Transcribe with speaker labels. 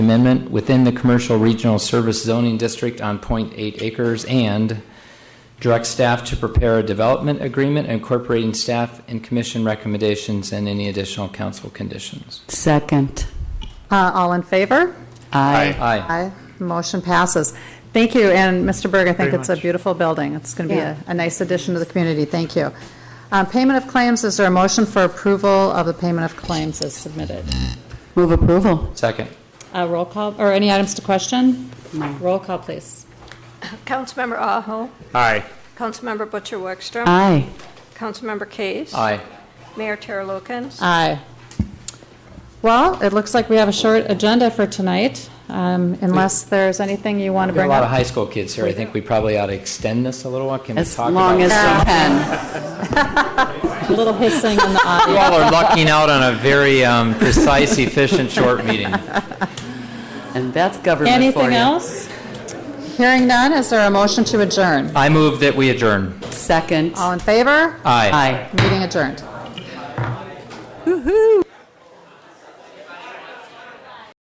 Speaker 1: amendment within the commercial regional service zoning district on .8 acres and direct staff to prepare a development agreement incorporating staff and commission recommendations and any additional council conditions.
Speaker 2: Second.
Speaker 3: Uh, All in favor?
Speaker 2: Aye.
Speaker 1: Aye.
Speaker 3: Aye. Motion passes. Thank you, and Mr. Berg, I think
Speaker 4: Very
Speaker 3: it's a
Speaker 4: much.
Speaker 3: beautiful building. It's going to be
Speaker 2: Yeah.
Speaker 3: a a nice addition to the community. Thank you. Uh, Payment of claims, is there a motion for approval of the payment of claims as submitted?
Speaker 2: Move approval.
Speaker 1: Second.
Speaker 3: Uh, Roll call, or any items to question? Roll call, please.
Speaker 5: Councilmember Aho.
Speaker 4: Aye.
Speaker 5: Councilmember Butcher Wexler.
Speaker 2: Aye.
Speaker 5: Councilmember Case.
Speaker 1: Aye.
Speaker 5: Mayor Tara Lukens.
Speaker 3: Aye. Well, it looks like we have a short agenda for tonight, um, unless there's anything you want to
Speaker 1: We have a
Speaker 3: bring
Speaker 1: lot of
Speaker 3: up.
Speaker 1: high school kids here. I think we probably ought to extend this a little while. Can we
Speaker 2: As
Speaker 1: talk
Speaker 2: long as
Speaker 1: about?
Speaker 2: we can.
Speaker 3: A little hissing in the
Speaker 1: You
Speaker 3: audience.
Speaker 1: all are lucking out on a very um, precise, efficient, short meeting.
Speaker 2: And that's government for you.
Speaker 3: Anything else? Hearing none, is there a motion to adjourn?
Speaker 1: I move that we adjourn.
Speaker 2: Second.
Speaker 3: All in favor?
Speaker 1: Aye.
Speaker 2: Aye.
Speaker 3: Meeting adjourned.